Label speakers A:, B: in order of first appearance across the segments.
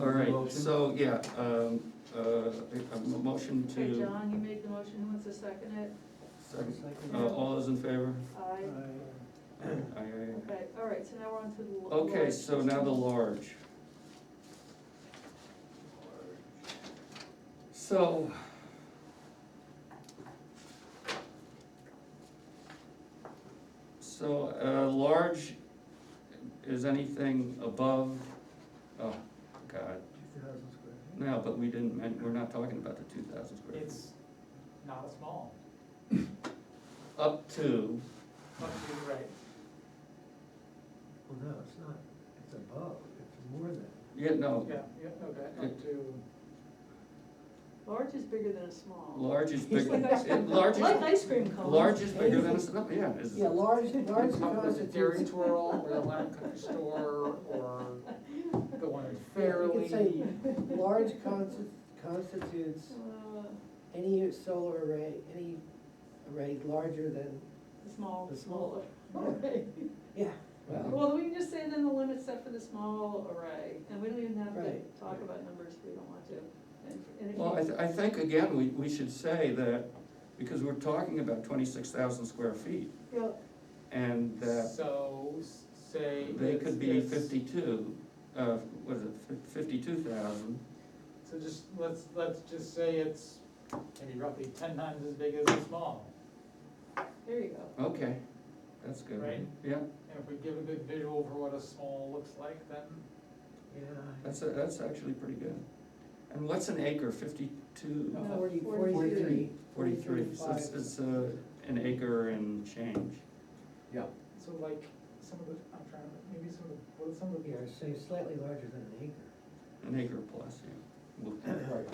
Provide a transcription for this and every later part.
A: All right, so, yeah, um, uh, a- a motion
B: Okay,
A: to,
B: John, you made the motion, who wants to second it?
A: second, uh, all those in favor?
B: Aye,
A: Aye, aye, aye.
B: okay, all right, so now we're on to the. lo-
A: Okay,
B: large.
A: so now the large. So. So, uh, large is anything above, oh, God, no, but we didn't, men- we're not talking about the two thousand square. feet.
C: It's not a small,
A: Up to,
C: up to, right,
D: Well, no, it's not, it's above, it's more than.
A: yeah, no,
C: yeah, yeah, okay, up to,
B: Large is bigger than a small.
A: Large is bigger,
B: Like ice
A: it-
B: cream-
A: large
B: Like
A: is,
B: ice cream cones.
A: large is bigger than, a s- yeah, is,
E: Yeah, large, large
C: up with the Dairy
E: constitutes,
C: Twirl or the Lamb Country Store or the one in
E: you could say,
C: Fairleigh.
E: large consti- constitutes
B: Uh,
E: any solar array, any array larger than,
B: The small.
E: The small.
B: Array.
E: yeah, well,
B: Well, we can just say then the limit set for the small array, and we don't even have to
E: Right.
B: talk about numbers if we don't want to. And- and if
A: well, I,
B: you-
A: th- I think again, we, we should say that, because we're talking about twenty-six thousand square feet,
B: Yeah,
A: and that
C: So, s- say.
A: they
C: it's-
A: could be
C: it's-
A: fifty-two, uh, what is it, fifty-two thousand,
C: So just, let's, let's just say it's maybe roughly ten times as big as a small.
B: There you go.
A: okay, that's good.
C: Right.
A: Yeah,
C: And if we give a good visual for what a small looks like, then
D: Yeah.
A: that's, a- that's actually pretty good. And what's an acre, fifty-two?
B: No,
E: forty,
B: forty-three.
E: forty-three.
A: Forty-three, so it's, it's, uh, an acre and change.
C: so like, some of the, I'm trying to, maybe some of, the- what are some of the.
E: Yeah, so slightly larger than an acre.
A: An acre plus, yeah. Well,
F: Right.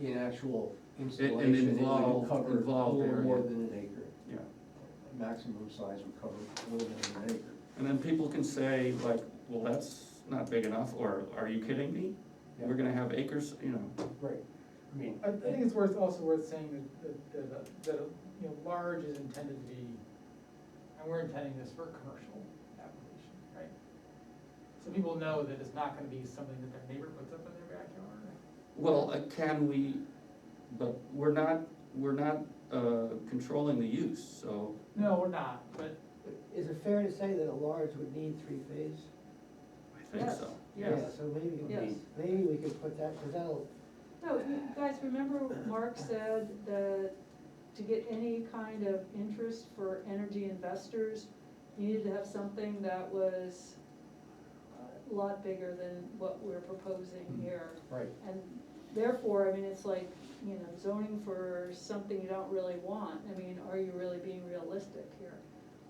F: Be an actual
A: It-
F: installation,
A: and
F: it would
A: involve-
F: cover a
A: involved
F: little more
A: area.
F: than an acre.
A: Yeah,
F: The Maximum size would cover a little more than an acre.
A: and then people can say like, well, that's not big enough, or are you kidding me? We're gonna have acres, you know,
F: Right, I mean,
C: I, I think it's worth, also worth saying that- that, that, a- that, a, you know, large is intended to be, and we're intending this for a commercial application, right? So people know that it's not gonna be something that their neighbor puts up in their backyard.
A: well, uh, can we, but we're not, we're not, uh, controlling the use, so,
C: No, we're not, but
E: Is it fair to say that a large would need three-phase?
A: I think
B: Yes,
A: so.
B: yes.
E: Yeah, So maybe,
B: Yes.
E: maybe we could put that, because that'll,
B: No, you guys, remember Mark said that to get any kind of interest for energy investors, you needed to have something that was a lot bigger than what we're
A: Hmm.
B: proposing here.
F: right,
B: And therefore, I mean, it's like, you know, zoning for something you don't really want, I mean, are you really being realistic here?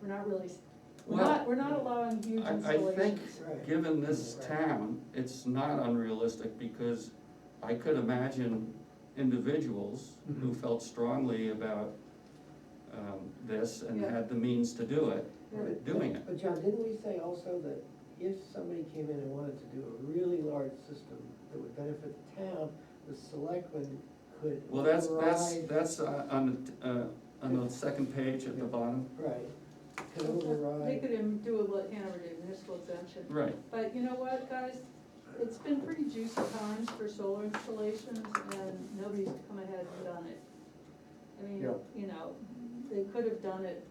B: We're not really, s- we're
A: Well,
B: not, we're not allowing huge
A: I, I think,
B: installations.
E: Right.
A: given this
E: Right.
A: town, it's not unrealistic, because I could imagine individuals who
F: Mhm.
A: felt strongly about, um, this and
B: Yeah.
A: had the means to do it,
B: Yeah.
A: doing it.
E: but John, didn't we say also that if somebody came in and wanted to do a really large system that would benefit the town, the selectmen could
A: Well, that's, that's,
E: override-
A: that's uh, on, the uh, on the second page at the bottom,
E: Right, could override.
B: They could em- do what Hanover did, municipal exemption.
A: right,
B: But you know what, guys, it's been pretty juicy times for solar installations, and nobody's come ahead and done it. I mean,
F: Yeah.
B: you know, they could have done it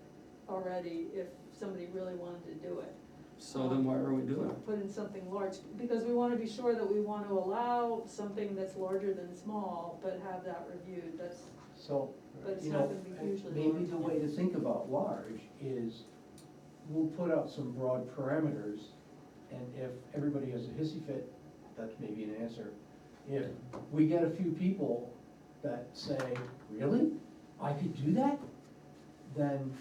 B: already if somebody really wanted to do it.
A: so then why are we doing it?
B: Put in something large, because we wanna be sure that we wanna allow something that's larger than small, but have that reviewed, that's,
F: so,
B: but it's
F: you
B: not
F: know,
B: gonna be hugely large.
F: maybe the way to think about large is we'll put out some broad parameters, and if everybody has a hissy fit, that's maybe an answer. If we get a few people that say, really, I could do that? Then,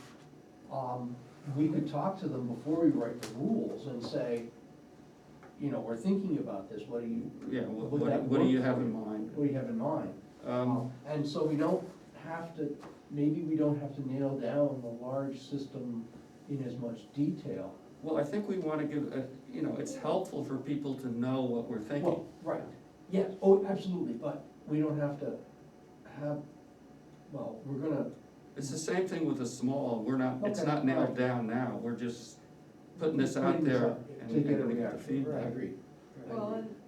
F: um, we could talk to them before we write the rules and say, you know, we're thinking about this, what do you?
A: Yeah, what,
F: would
A: what
F: that
A: what do you
F: work oh.
A: have
F: for
A: in mind?
F: What do you have in mind?
A: Um,
F: And so we don't have to, maybe we don't have to nail down the large system in as much detail.
A: Well, I think we wanna give, a- you know, it's helpful for people to know what we're thinking.
F: Well, Right, yes, oh, absolutely, but we don't have to have, well, we're gonna,
A: It's the same thing with the small, we're not, it's
F: Okay,
A: not nailed
F: right.
A: down now, we're just putting this out
F: Putting this
A: there
F: out
A: and
F: to get a
A: and we get the
F: reaction,
A: feedback.
F: I agree.
B: Well, and